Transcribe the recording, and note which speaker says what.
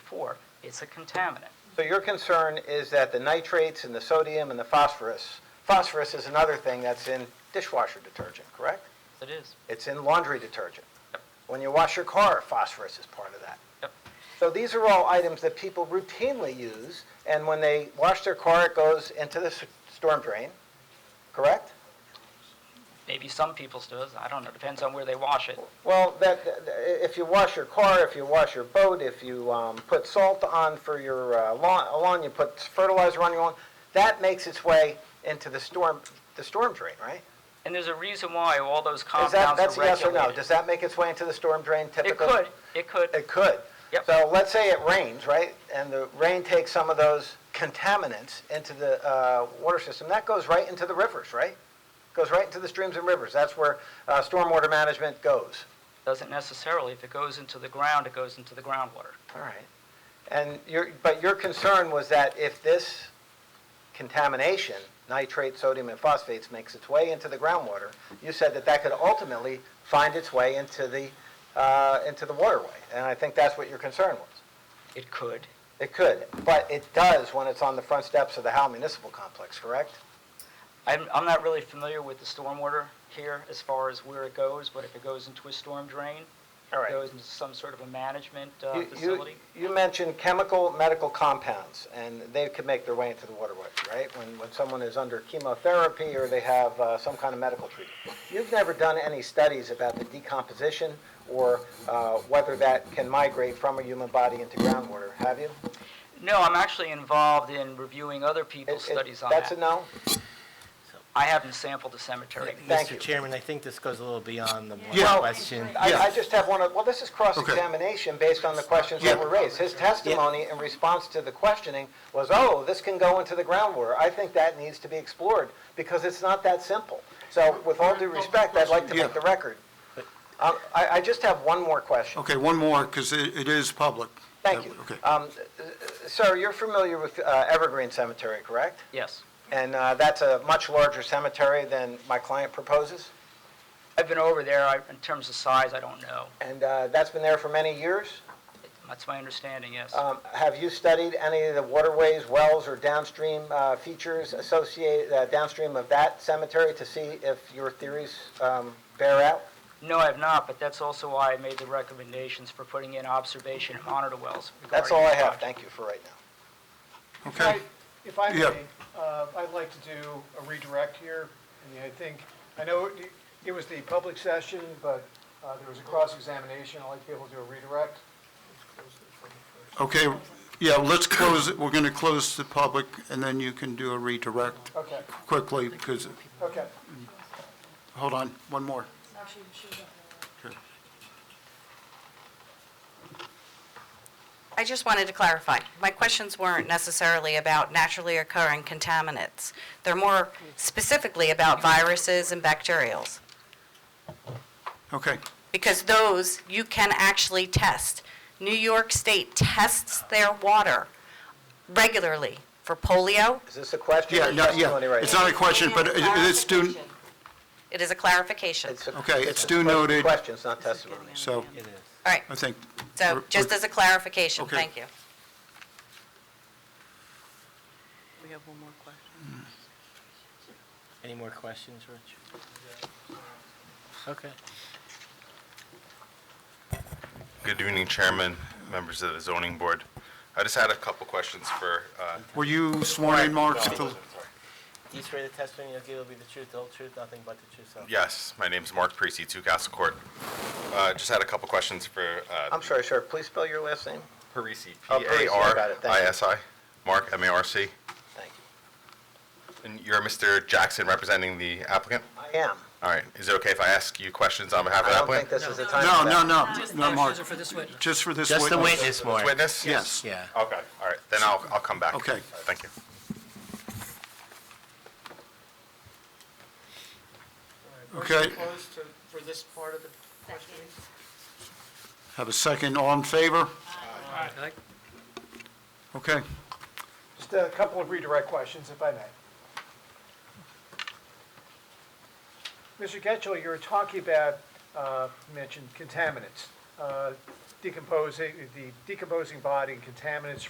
Speaker 1: before. It's a contaminant.
Speaker 2: So your concern is that the nitrates and the sodium and the phosphorus, phosphorus is another thing that's in dishwasher detergent, correct?
Speaker 1: It is.
Speaker 2: It's in laundry detergent. When you wash your car, phosphorus is part of that.
Speaker 1: Yep.
Speaker 2: So these are all items that people routinely use, and when they wash their car, it goes into the s- storm drain, correct?
Speaker 1: Maybe some people's does. I don't know. Depends on where they wash it.
Speaker 2: Well, that, that- if you wash your car, if you wash your boat, if you um, put salt on for your uh, lawn, lawn, you put fertilizer on your lawn, that makes its way into the storm, the storm drain, right?
Speaker 1: And there's a reason why all those
Speaker 2: Is
Speaker 1: compounds
Speaker 2: that,
Speaker 1: are
Speaker 2: that's a yes or no?
Speaker 1: regulated.
Speaker 2: Does that make its way into the storm drain typically?
Speaker 1: It could, it could.
Speaker 2: It could.
Speaker 1: Yep.
Speaker 2: So let's say it rains, right? And the rain takes some of those contaminants into the uh, water system. That goes right into the rivers, right? Goes right into the streams and rivers. That's where uh, stormwater management goes.
Speaker 1: Doesn't necessarily. If it goes into the ground, it goes into the groundwater.
Speaker 2: All right. And your, but your concern was that if this contamination, nitrate, sodium, and phosphates, makes its way into the groundwater, you said that that could ultimately find its way into the, uh, into the waterway. And I think that's what your concern was.
Speaker 1: It could.
Speaker 2: It could, but it does when it's on the front steps of the Howell Municipal Complex, correct?
Speaker 1: I'm, I'm not really familiar with the stormwater here as far as where it goes, but if it goes into a storm drain,
Speaker 2: All
Speaker 1: it
Speaker 2: right.
Speaker 1: goes into some sort of a management uh,
Speaker 2: You- you-
Speaker 1: facility.
Speaker 2: You mentioned chemical, medical compounds, and they could make their way into the waterway, right? When, when someone is under chemotherapy or they have uh, some kind of medical treatment. You've never done any studies about the decomposition or uh, whether that can migrate from a human body into groundwater, have you?
Speaker 1: No, I'm actually involved in reviewing other
Speaker 2: It-
Speaker 1: people's
Speaker 2: it-
Speaker 1: studies on
Speaker 2: That's
Speaker 1: that.
Speaker 2: a no?
Speaker 1: I haven't sampled the cemetery.
Speaker 2: Thank you.
Speaker 3: Mr. Chairman, I think this goes a little beyond the
Speaker 2: Yeah.
Speaker 3: one question.
Speaker 2: I, I just have one, of- well, this is cross-examination based on the questions that were raised. His testimony in response to the questioning was, oh, this can go into the groundwater. I think that needs to be explored, because it's not that simple. So with all due respect, I'd like to make the record. Um, I, I just have one more question.
Speaker 4: Okay, one more, because it it is public.
Speaker 2: Thank you.
Speaker 4: Okay.
Speaker 2: Um, Sir, you're familiar with uh, Evergreen Cemetery, correct?
Speaker 1: Yes.
Speaker 2: And uh, that's a much larger cemetery than my client proposes?
Speaker 1: I've been over there. I, in terms of size, I don't know.
Speaker 2: And uh, that's been there for many years?
Speaker 1: That's my understanding, yes.
Speaker 2: Um, Have you studied any of the waterways, wells, or downstream uh, features associated, uh, downstream of that cemetery to see if your theories um, bear out?
Speaker 1: No, I have not, but that's also why I made the recommendations for putting in observation and monitor wells.
Speaker 2: That's
Speaker 1: regarding
Speaker 2: all I
Speaker 1: the
Speaker 2: have,
Speaker 1: project.
Speaker 2: thank you for right now.
Speaker 5: If I-
Speaker 4: Okay,
Speaker 5: If I
Speaker 4: Yeah.
Speaker 5: may, uh, I'd like to do a redirect here, and I think, I know it- it was the public session, but uh, there was a cross-examination, I'd like to be able to do a redirect.
Speaker 4: okay, yeah, let's close, it. we're going to close the public, and then you can do a redirect
Speaker 5: Okay,
Speaker 4: quickly, because,
Speaker 5: okay.
Speaker 4: hold on, one more.
Speaker 6: I just wanted to clarify. My questions weren't necessarily about naturally occurring contaminants. They're more specifically about viruses and bacterials,
Speaker 4: Okay,
Speaker 6: because those you can actually test. New York State tests their water regularly for polio.
Speaker 2: Is this a question
Speaker 4: yeah,
Speaker 2: or
Speaker 4: no,
Speaker 2: testimony
Speaker 4: yeah,
Speaker 2: right
Speaker 4: it's
Speaker 2: now?
Speaker 4: not a question, but it- it's due,
Speaker 6: It is a clarification.
Speaker 2: It's a-
Speaker 4: okay, it's
Speaker 2: a
Speaker 4: due
Speaker 2: que-
Speaker 4: noted,
Speaker 2: Questions, not testimony.
Speaker 4: so
Speaker 6: All right,
Speaker 4: I think,
Speaker 6: so just as a clarification,
Speaker 4: Okay.
Speaker 6: thank you.
Speaker 7: We have one more question.
Speaker 3: Any more questions, Rich? Okay.
Speaker 8: Good evening, Chairman, members of the zoning board. I just had a couple questions for, uh,
Speaker 4: were you sworn in, Mark? at the-
Speaker 3: Do you swear the testimony you'll give will be the truth, the whole truth, nothing but the truth? so help you
Speaker 8: yes, my name's Mark Parisi, Two Castle Court. Uh, Just had a couple questions for uh,
Speaker 2: I'm sorry, sir, please spell your last name?
Speaker 8: Parisi,
Speaker 2: Oh, Parisi, I got it, thank you.
Speaker 8: P-A-R-I-S-I, Mark, M-A-R-C.
Speaker 2: Thank you.
Speaker 8: And you're Mr. Jackson representing the applicant?
Speaker 2: I am.
Speaker 8: All right, is it okay if I ask you questions on behalf of
Speaker 2: I
Speaker 8: the
Speaker 2: don't think
Speaker 8: applicant?
Speaker 2: this is the time.
Speaker 4: No,
Speaker 2: for
Speaker 4: no,
Speaker 2: that.
Speaker 4: no, no, Mark,
Speaker 7: for this witness.
Speaker 4: just for this witness.
Speaker 3: Just the witness, Mark.
Speaker 8: Witness?
Speaker 4: Yes.
Speaker 3: Yeah.
Speaker 8: Okay, all right, then I'll I'll come back.
Speaker 4: Okay.
Speaker 8: Thank you.
Speaker 4: Okay.
Speaker 5: Closed for this part of the questioning?
Speaker 4: Have a second, all in favor? Okay,
Speaker 5: Just a couple of redirect questions, if I may. Mr. Getchell, you were talking about, uh, you mentioned contaminants. Uh, decomposing, the decomposing body and contaminants